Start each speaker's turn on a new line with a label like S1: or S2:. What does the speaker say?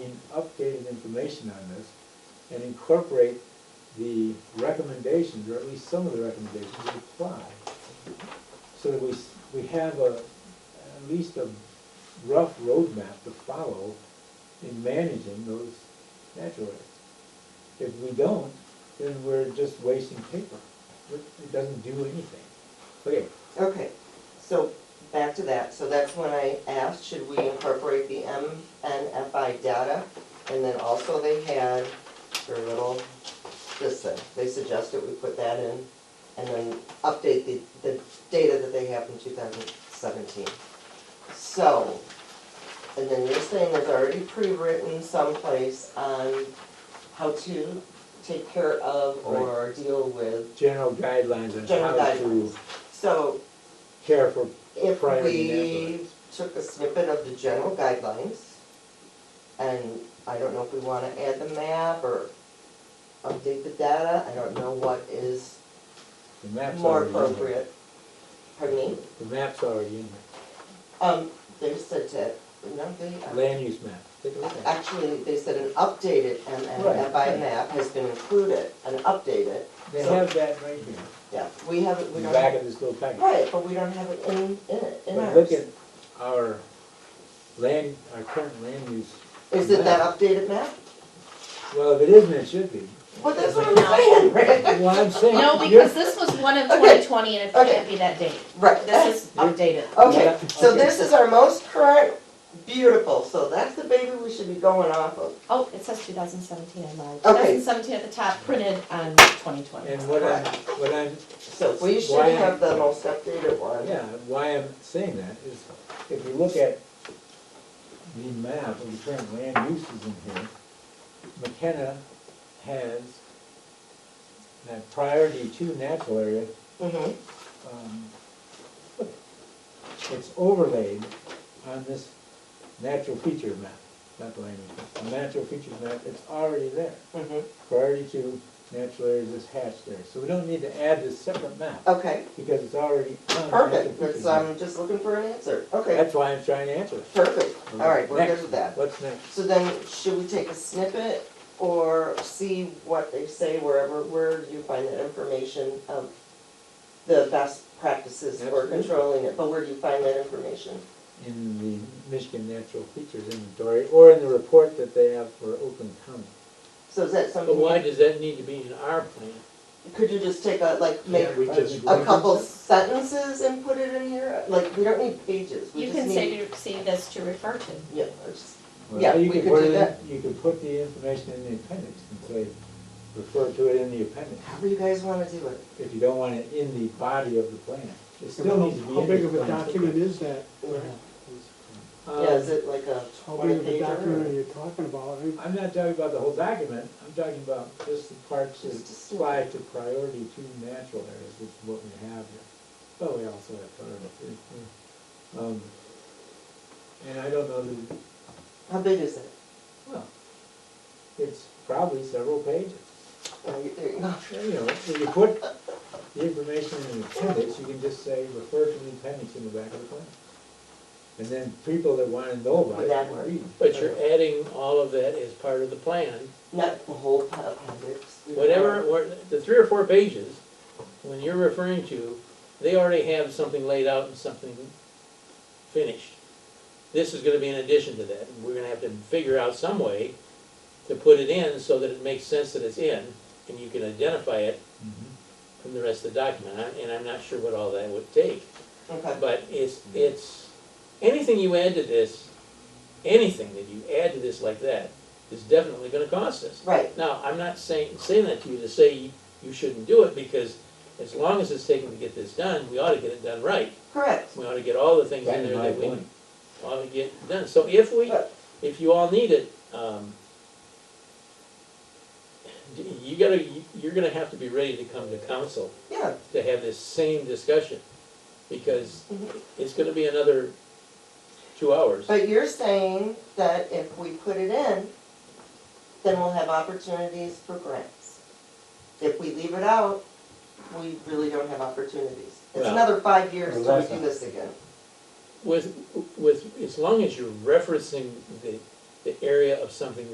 S1: information on this and incorporate the recommendations, or at least some of the recommendations that apply. So that we, s- we have a, at least a rough roadmap to follow in managing those natural areas. If we don't, then we're just wasting paper. It it doesn't do anything. Okay,
S2: Okay, so back to that, so that's when I asked, should we incorporate the MNFI data? And then also they had their little, this thing, they suggested we put that in and then update the, the data that they have from two thousand seventeen. So, and then you're saying there's already pre-written someplace on how to take care of or deal with,
S1: general guidelines on
S2: General
S1: how to
S2: guidelines. so
S1: care for
S2: if
S1: priority
S2: we
S1: natural
S2: took a snippet of the general guidelines, and I don't know if we wanna add the map or update the data, I don't know what is
S1: The map's
S2: more
S1: already in there.
S2: appropriate. Pardon me,
S1: The map's already in there.
S2: um, they said to, no, they,
S1: Land use map. Take a look at
S2: actually, they said an updated
S1: Right.
S2: MNFI map has been included, an updated,
S1: it. They
S2: so-
S1: have that right here,
S2: yeah, we haven't, we
S1: in the
S2: don't
S1: back
S2: have,
S1: of this little packet.
S2: right, but we don't have it in, in it, in
S1: But
S2: ours.
S1: look at our land, our current land use.
S2: Is it that
S1: map.
S2: updated map?
S1: Well, if it isn't, it should be.
S2: Well, that's what I'm saying, right?
S1: Well, I'm saying,
S3: No,
S1: you're,
S3: because this was one of
S2: Okay.
S3: twenty twenty and it
S2: Okay.
S3: can't be that date.
S2: Right,
S3: This is
S1: You're-
S3: updated.
S2: Okay,
S1: Yeah,
S2: so
S1: okay.
S2: this is our most current, beautiful, so that's the baby we should be going off of.
S3: Oh, it says two thousand seventeen on mine. Two
S2: Okay.
S3: thousand seventeen at the top, printed on twenty twenty.
S1: and what I'm, what I'm
S2: So we should
S1: Why-
S2: have the most updated one.
S1: Yeah, why I'm saying that is, if you look at the map of the current land uses in here, McKenna has that priority two natural area,
S2: Mhm.
S1: um, it's overlaid on this natural feature map, not the land use map, the natural features map, it's already there.
S2: Mhm.
S1: Priority two, natural areas is hatched there, so we don't need to add this separate map,
S2: Okay,
S1: because it's already on the natural
S2: perfect,
S1: features
S2: that's,
S1: map.
S2: I'm just looking for an answer, okay,
S1: That's why I'm trying to answer it.
S2: perfect, all right, we're good
S1: Next.
S2: with that.
S1: What's next?
S2: So then, should we take a snippet or see what they say wherever, where do you find that information of the best practices for
S1: Absolutely.
S2: controlling it, but where do you find that information?
S1: In the Michigan Natural Features Inventory, or in the report that they have for Oakland County.
S2: So is that
S4: But
S2: something,
S4: why
S2: you-
S4: does that need to be in our plan?
S2: could you just take a, like, make
S4: Can't we just
S2: a couple sentences and put it in here? Like, we don't need pages, we
S3: You
S2: just
S3: can
S2: need.
S3: say to see this to refer to.
S2: Yeah, or just-
S1: Well,
S2: Yeah,
S1: you
S2: we
S1: could
S2: could
S1: put
S2: do
S1: it in-
S2: that.
S1: You could put the information in the appendix and say, refer to it in the appendix,
S2: however you guys wanna do it.
S1: if you don't want it in the body of the plan. It still needs to be
S5: How
S1: in
S5: big
S1: the
S5: of a
S1: plan.
S5: document is that?
S1: Um,
S4: Um,
S2: Yeah, is it like a
S5: How big
S2: twenty
S5: of a document are
S2: pager?
S5: you talking about? I mean,
S1: Uh, I'm not talking about the whole document, I'm talking about just the parts that
S2: Just a snippet.
S1: apply to priority two natural areas, which is what we have here. But we also have priority three. Um, And I don't know that,
S2: How big is it?
S1: well, it's probably several pages.
S2: Oh, you- There you go.
S1: You know, if you put the information in the appendix, you can just say, refer to the appendix in the back of the plan. And then people that wanna know about it
S2: Would that
S1: can
S2: work?
S1: read.
S4: But you're adding all of that as part of the plan,
S2: Not the whole pa- appendix. We don't
S4: whatever,
S2: know.
S4: or the three or four pages, when you're referring to, they already have something laid out and something finished. This is gonna be in addition to that, and we're gonna have to figure out some way to put it in so that it makes sense that it's in, and you can identify it
S1: Mhm.
S4: from the rest of the document, I- and I'm not sure what all that would take.
S2: Okay,
S4: But it's, it's, anything you add to this, anything that you add to this like that, is definitely gonna cost us.
S2: right,
S4: Now, I'm not saying, saying that to you to say you- you shouldn't do it, because as long as it's taking to get this done, we ought to get it done right.
S2: correct.
S4: We ought to get all the things in
S1: That's
S4: there
S1: my
S4: that we
S1: point.
S4: ought to get done. So if we, if you all need it, um, you gotta, you're gonna have to be ready to come to council
S2: Yeah,
S4: to have this same discussion, because
S2: Mhm.
S4: it's gonna be another two hours.
S2: but you're saying that if we put it in, then we'll have opportunities for grants. If we leave it out, we really don't have opportunities. It's
S4: Well,
S2: another five years till we
S1: that's
S2: do
S1: not-
S2: this again.
S4: With, with, as long as you're referencing the, the area of something